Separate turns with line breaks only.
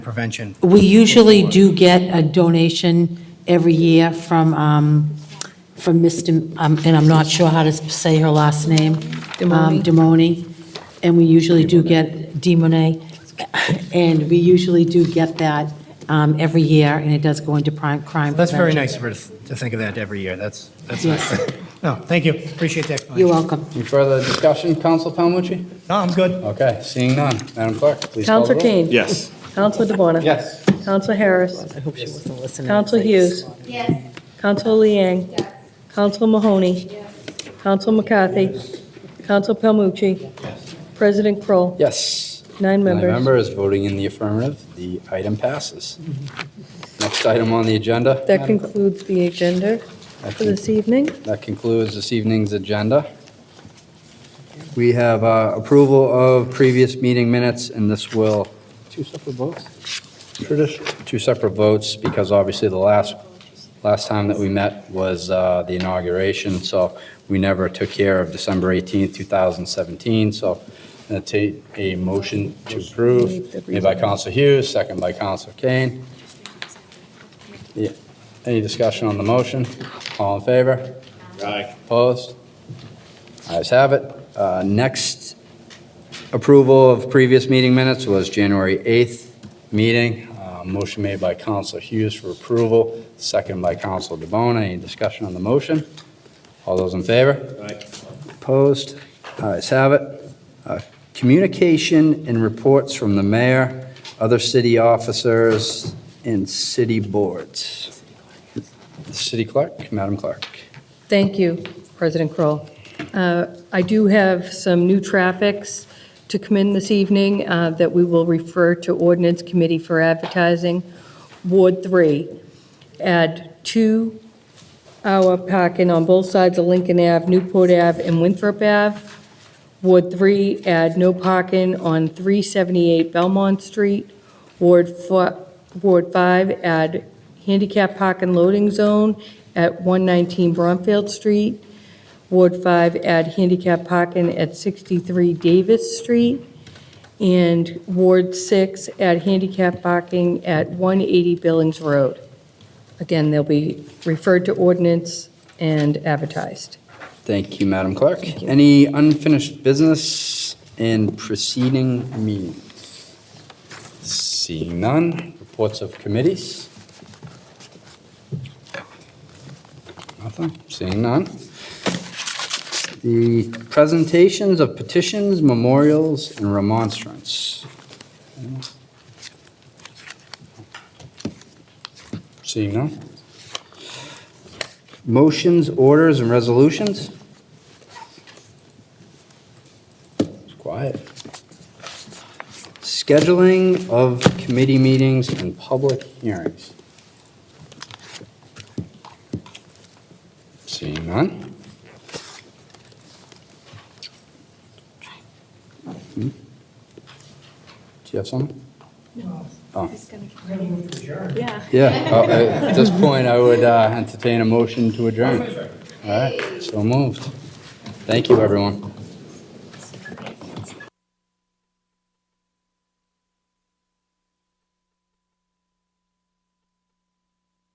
prevention.
We usually do get a donation every year from, um, from Mr., um, and I'm not sure how to say her last name. Demoni. Demoni, and we usually do get, Demone, and we usually do get that um, every year, and it does go into prime crime.
That's very
prevention.
nice of her to to think of that every year. That's, that's nice. No,
Yes.
thank you. Appreciate the explanation.
You're welcome.
Any further discussion, Counsel Palmucci?
No, I'm good.
Okay, seeing none. Madam Clerk, please call the
Counselor
roll.
Kane?
Yes.
Counselor DeBona?
Yes.
Counselor Harris?
I hope she wasn't listening.
Counselor Hughes?
Yes.
Counselor Liang? Counselor Mahoney? Counselor McCarthy? Counselor Palmucci? President Kroll?
Yes.
Nine
Nine
members.
members voting in the affirmative, the item passes.
Mm-hmm.
Next item on the agenda.
That
Madam-
concludes the agenda
That
for
con-
this evening.
That concludes this evening's agenda. We have uh, approval of previous meeting minutes, and this will. Two separate votes? Two separate votes, because obviously the last, last time that we met was uh, the inauguration, so we never took care of December 18th, 2017, so i take a motion to approve, made by Counsel Hughes, second by Counsel Kane. Yeah. Any discussion on the motion? All in favor?
Aye.
Opposed? Ayes have it. Uh, Next approval of previous meeting minutes was January 8th meeting. Uh, Motion made by Counsel Hughes for approval, second by Counsel DeBona. Any discussion on the motion? All those in favor?
Aye.
Opposed? Ayes have it. Uh, Communication and reports from the mayor, other city officers, and city boards. City clerk, Madam Clerk.
Thank you, President Kroll. Uh, I do have some new traffics to come in this evening uh, that we will refer to Ordinance Committee for Advertising, Ward 3. Add two-hour parking on both sides of Lincoln Ave, Newport Ave, and Winthrop Ave. Ward 3, add no parking on 378 Belmont Street. Ward fi- Ward 5, add handicap parking loading zone at 119 Bromfield Street. Ward 5, add handicap parking at 63 Davis Street. And Ward 6, add handicap parking at 180 Billings Road. Again, they'll be referred to ordinance and advertised.
Thank you, Madam Clerk. Any unfinished business in preceding meetings? Seeing none, reports of committees? Nothing, seeing none. The presentations of petitions, memorials, and remonstrance. Seeing none. Motions, orders, and resolutions? It's quiet. Scheduling of committee meetings and public hearings. Seeing none? Hmm? Do you have something? No.
Yeah.
Yeah, uh, at this point, I would uh, entertain a motion to adjourn. All right, so moved. Thank you, everyone.